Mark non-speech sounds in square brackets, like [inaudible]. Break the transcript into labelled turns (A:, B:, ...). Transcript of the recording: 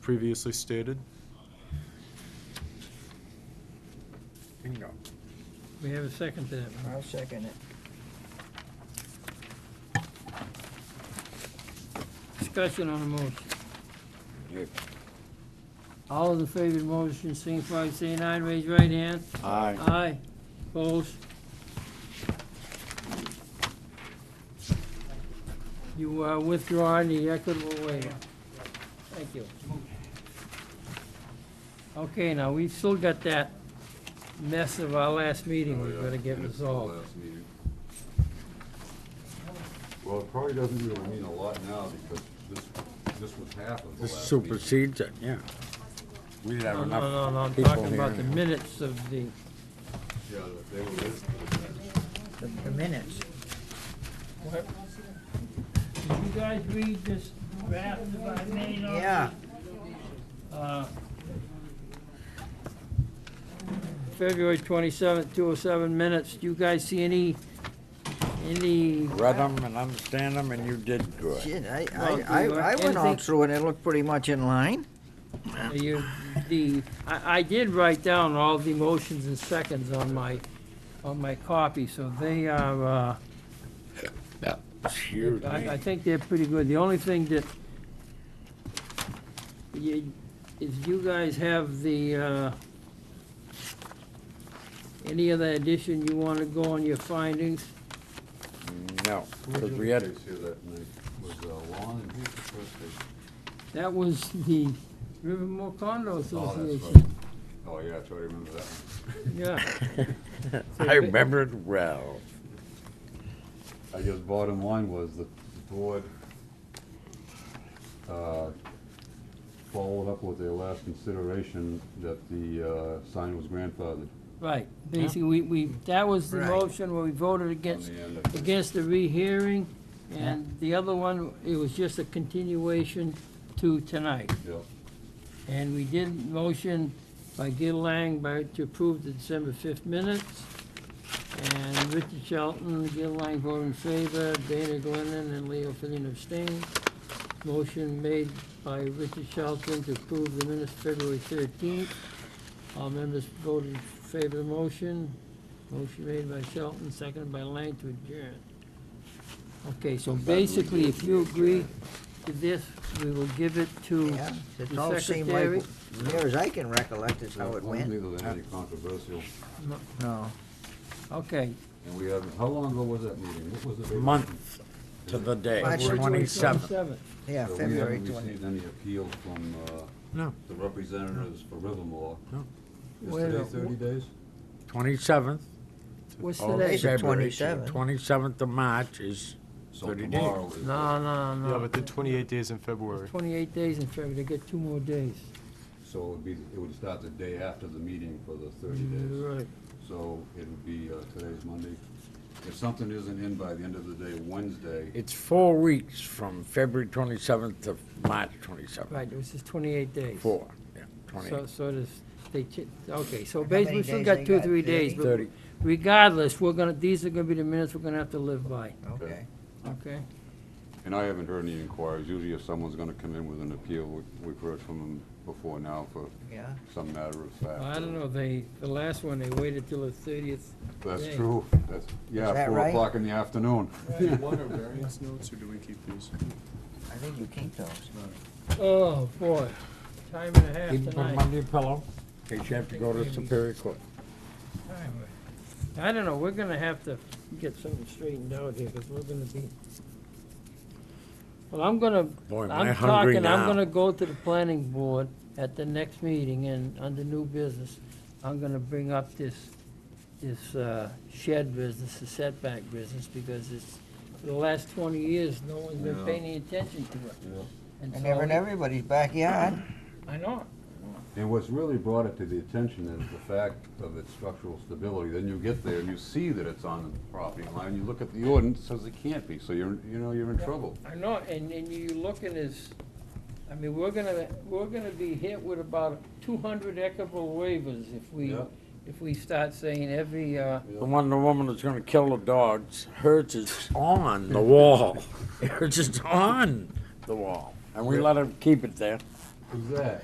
A: previously stated.
B: Bingo.
C: We have a second to that.
D: I'll second it.
C: Discussion on the motion.
B: Yep.
C: All in favor of the motion, signify by saying aye, raise your right hand.
B: Aye.
C: Aye. Opposed? You are withdrawing the equitable waiver. Thank you. Okay, now, we've still got that mess of our last meeting we've got to get resolved.
E: Well, it probably doesn't really mean a lot now because this, this was half of the
B: This
E: last meeting.
B: supersedes it, yeah. We didn't
C: No,
B: have
C: no, no, no,
B: enough
C: I'm
B: people
C: talking about the
B: here.
C: minutes of the,
E: Yeah, they were listed as that.
D: The the minutes.
C: did you guys read this draft that I made on?
D: Yeah,
C: Uh, February twenty-seventh, two oh seven minutes, do you guys see any, any,
B: Read them and understand them and you did good.
D: shit, I,
C: Well,
D: I,
C: do you
D: I I went all
C: anything-
D: through and it looked pretty much in line.
C: you, the, I, I did write down all the motions and seconds on my, on my copy, so they are, uh,
B: Excuse
C: I, I
B: me.
C: think they're pretty good. The only thing that you, is you guys have the, uh, any other addition you want to go on your findings?
B: No,
E: Who was
B: because
E: the
B: we
E: other
B: had,
E: case here that night? Was uh, Lon and who was the first case?
C: That was the Rivermore Condo
E: Oh, that's
C: Association.
E: right. Oh, yeah, I totally remember that
C: Yeah,
E: [laughs]
B: I remember it well.
E: one. I guess bottom line was that the board, uh, followed up with their last consideration that the, uh, sign was grandfathered
C: right. Basically, we, we, that was the
D: Right.
C: motion where we voted
E: on
C: against,
E: the end of it.
C: against the rehearing. And the other one, it was just a continuation to tonight.
E: Yeah,
C: And we did motion by Gil Lang by, to approve the December 5th minutes. And Richard Shelton, Gil Lang voted in favor, Dana Glennon and Leo Fillion abstained. Motion made by Richard Shelton to approve the minutes February 13th. All members voted in favor of the motion. Motion made by Shelton, seconded by Lang to adjourn. Okay, so basically, if you agree to this, we will give it to
D: Yeah, it all
C: the
D: seemed like,
C: secretary.
D: near as I can recollect is how
E: I
D: it
E: don't
D: went.
E: think there's anything controversial.
D: No,
C: Okay,
E: And we haven't, how long ago was that meeting? What was the date?
B: Month to the day,
D: March
B: twenty-seventh.
D: yeah,
E: So
D: February
E: We haven't
D: twenty.
E: received any appeal from, uh,
B: No.
E: the representatives for Rivermore.
B: No.
E: Is
C: Wait a
E: today
C: minute,
E: thirty days?
B: Twenty-seventh
C: What's
B: of
D: Today's the
C: today?
B: Oh, February.
D: 27th.
B: Twenty-seventh of March is,
E: So
B: 30 days.
E: tomorrow is.
C: No, no,
A: Yeah,
C: no.
A: but the 28 days in February.
C: It's Twenty-eight days in February, they get two more days.
E: So it would be, it would start the day after the meeting for the thirty days.
C: Right.
E: So it would be, uh, today's Monday. If something isn't in by the end of the day, Wednesday,
B: it's four weeks from February twenty-seventh to March twenty-seventh.
C: Right, this is twenty-eight days.
B: Four, yeah,
C: So,
B: twenty,
C: so it is, they, ch- okay, so
D: How many
C: basically, we still
D: days
C: got
D: they
C: two,
D: got?
C: three days, but
B: thirty.
C: regardless, we're gonna, these are gonna be the minutes we're gonna have to live by,
D: Okay,
C: okay?
E: and I haven't heard any inquiries. Usually if someone's gonna come in with an appeal, we- we've heard from them before now for
D: yeah.
E: some matter of fact.
C: I don't know, they, the last one, they waited till the thirtieth.
E: That's
C: Today.
E: true. That's, yeah,
D: that
E: four
D: right?
E: o'clock in the afternoon.
A: Do you want our variance notes, or do we keep these?
D: I think you keep those.
C: Oh, boy, time and a half
B: Keep them
C: tonight.
B: under your pillow, in case you have to go to Superior Court.
C: I don't know, we're gonna have to get something straightened out here, because we're gonna be. Well, I'm gonna
B: Boy, am I
C: I'm
B: hungry
C: talking, I'm
B: now.
C: gonna go to the planning board at the next meeting and, under new business, I'm gonna bring up this, this uh, shed business, the setback business, because it's, for the last twenty years, no one's been
E: Yeah.
C: paying any attention to it.
E: Yeah.
D: And
C: so
D: they're in
C: it-
D: everybody's backyard.
C: I know,
E: And what's really brought it to the attention is the fact of its structural stability. Then you get there and you see that it's on the property line, you look at the ordinance, it says it can't be, so you're, you know, you're in trouble.
C: I know, and, and you look at this, I mean, we're gonna, we're gonna be hit with about two hundred equitable waivers if we,
E: Yeah.
C: if we start saying every, uh,
B: The one, the woman that's gonna kill the dogs, hers is on [laughs] the wall. Hers is on the wall. And we let her keep it there.
E: Who's that?